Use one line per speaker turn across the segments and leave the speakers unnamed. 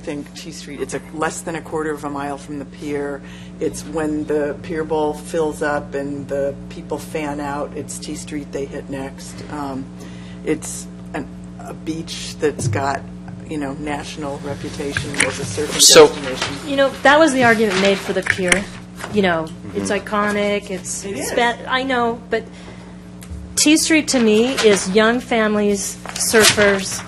think T Street, it's a, less than a quarter of a mile from the pier. It's when the pier bowl fills up and the people fan out, it's T Street they hit next. Um, It's an, a beach that's got, you know, national reputation as a surfing
So-
destination.
You know, that was the argument made for the pier. You know,
Mm-hmm.
it's iconic, it's.
It is.
spa- I know, but T Street to me is young families, surfers.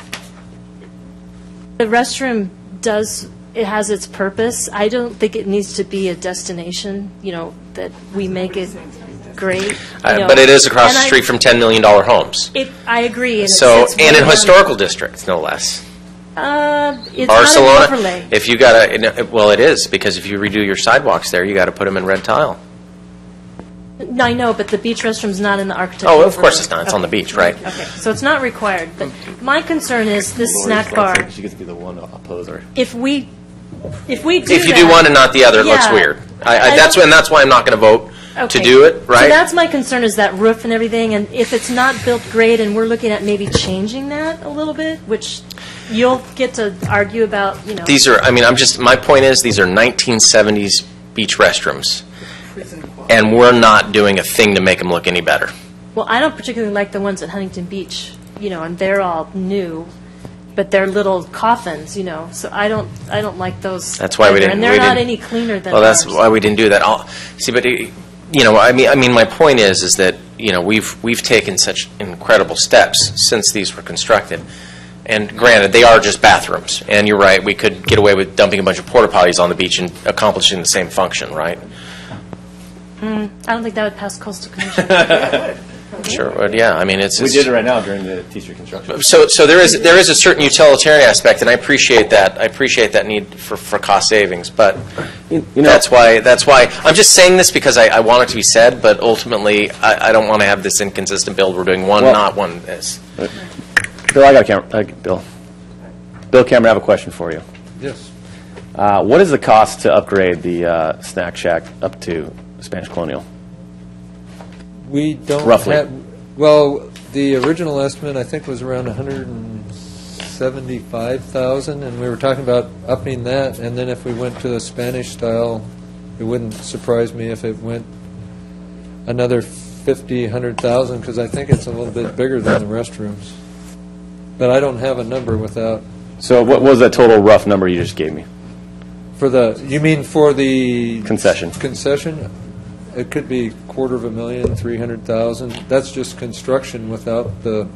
The restroom does, it has its purpose. I don't think it needs to be a destination, you know, that we make it great. you know.
Uh, But it is across
And
the
I-
street from $10 million homes.
It, I agree. and it
So,
sits
and in
way down-
historical districts, no less.
Uh, it's not an
Barcelona,
overlay.
if you gotta, and, uh, well, it is, because if you redo your sidewalks there, you gotta put them in red tile.
No, I know, but the beach restroom's not in the architectural.
Oh, of course
overlay.
it's not. It's on the
Okay.
beach, right?
Okay, so it's not required, but my concern is this snack bar,
She gets to be the one opposer.
if we, if we do
If you do
that-
one and not the other, it looks
Yeah.
weird. I,
I
I, that's,
don't-
and that's why I'm not gonna vote to
Okay.
do it,
So
right?
that's my concern, is that roof and everything, and if it's not built great, and we're looking at maybe changing that a little bit, which you'll get to argue about, you know.
These are, I mean, I'm just, my point is, these are 1970s beach restrooms, and we're not doing a thing to make them look any better.
Well, I don't particularly like the ones at Huntington Beach, you know, and they're all new, but they're little coffins, you know, so I don't, I don't like those.
That's why we
either,
didn't.
And they're
we
not
didn't-
any cleaner than
Well, that's
ours.
why we didn't do that. I'll, see, but eh, you know, I mean, I mean, my point is, is that you know, we've we've taken such incredible steps since these were constructed. And granted, they are just bathrooms. And you're right, we could get away with dumping a bunch of porta potties on the beach and accomplishing the same function, right?
Mm, I don't think that would pass coastal commission.
Sure. But yeah, I mean, it's.
We
it's-
did it right now during the teacher construction.
So, so there is, there is a certain utilitarian aspect, and I appreciate that, I appreciate that need for, for cost savings, but
you know-
that's why, that's why, I'm just saying this because I, I want it to be said, but ultimately, I, I don't want to have this inconsistent build, we're doing one,
Well-
not one this.
Bill, I got a camera, uh, Bill. Bill Cameron, I have a question for you.
Yes.
Uh, what is the cost to upgrade the uh, snack shack up to Spanish Colonial?
We don't
Roughly.
have, well, the original estimate, I think, was around 175,000, and we were talking about upping that, and then if we went to the Spanish style, it wouldn't surprise me if it went another 50, 100,000, because I think it's a little bit bigger than the restrooms. But I don't have a number without,
So what was that total rough number you just gave me?
for the, you mean for the?
Concession.
Concession? It could be quarter of a million, three hundred thousand. That's just construction without the,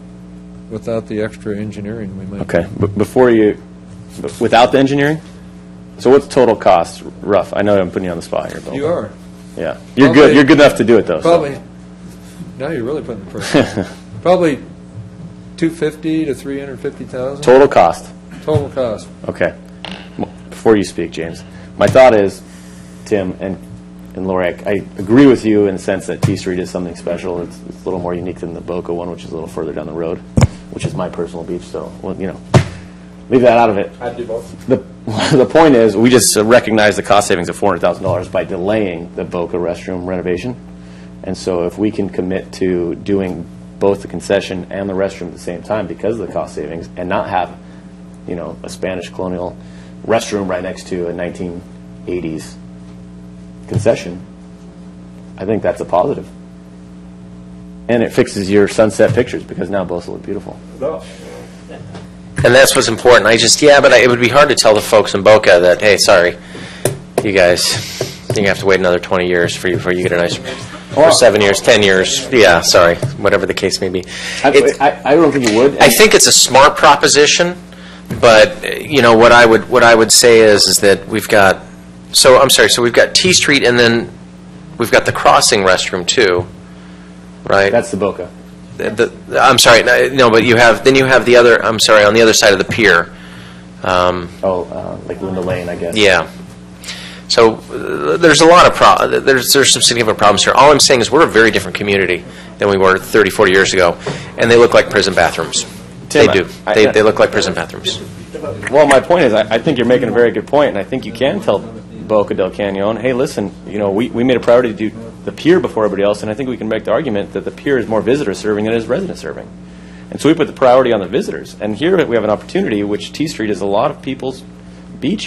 without the extra engineering we might.
Okay, b- before you, b- without the engineering? So what's total cost, rough? I know I'm putting you on the spot here, Bill.
You are,
Yeah, you're
Probably-
good, you're good enough to do it, though. so.
probably, now you're really putting the pressure. on. Probably two fifty to three hundred fifty thousand
Total cost.
total cost.
Okay. M- Before you speak, James, my thought is, Tim and, and Lori, I, I agree with you in the sense that T Street is something special. It's, it's a little more unique than the Boca one, which is a little further down the road, which is my personal beach, so, well, you know, leave that out of it. I'd do both. The, the point is, we just recognize the cost savings of $400,000 by delaying the Boca restroom renovation. And so if we can commit to doing both the concession and the restroom at the same time because of the cost savings and not have, you know, a Spanish colonial restroom right next to a 1980s concession, I think that's a positive. And it fixes your sunset pictures because now both will look beautiful.
And that's what's important, I just, yeah, but I- it would be hard to tell the folks in Boca that, hey, sorry, you guys, you're gonna have to wait another 20 years for you, before you get a nice, or seven years, 10 years, yeah, sorry, whatever the case may be. It's-
I, I, I don't think you would.
I think it's a smart proposition, but, uh, you know, what I would, what I would say is, is that we've got, so, I'm sorry, so we've got T Street, and then we've got the crossing restroom, too, right?
that's the Boca.
The- the- I'm sorry, no, no, but you have, then you have the other, I'm sorry, on the other side of the pier. Um,
Oh, uh, like Linda Lane, I guess.
Yeah. So, uh, there's a lot of, pro- there's, there's some significant problems here. All I'm saying is, we're a very different community than we were 30, 40 years ago, and they look like prison bathrooms. They
Tim, I-
do.
I-
They, they look like prison bathrooms.
Well, my point is, I, I think you're making a very good point, and I think you can tell Boca del Canyon, hey, listen, you know, we, we made a priority to do the pier before everybody else, and I think we can make the argument that the pier is more visitor serving than it is resident serving. And so we put the priority on the visitors. And here we have an opportunity, which T Street is a lot of people's
beach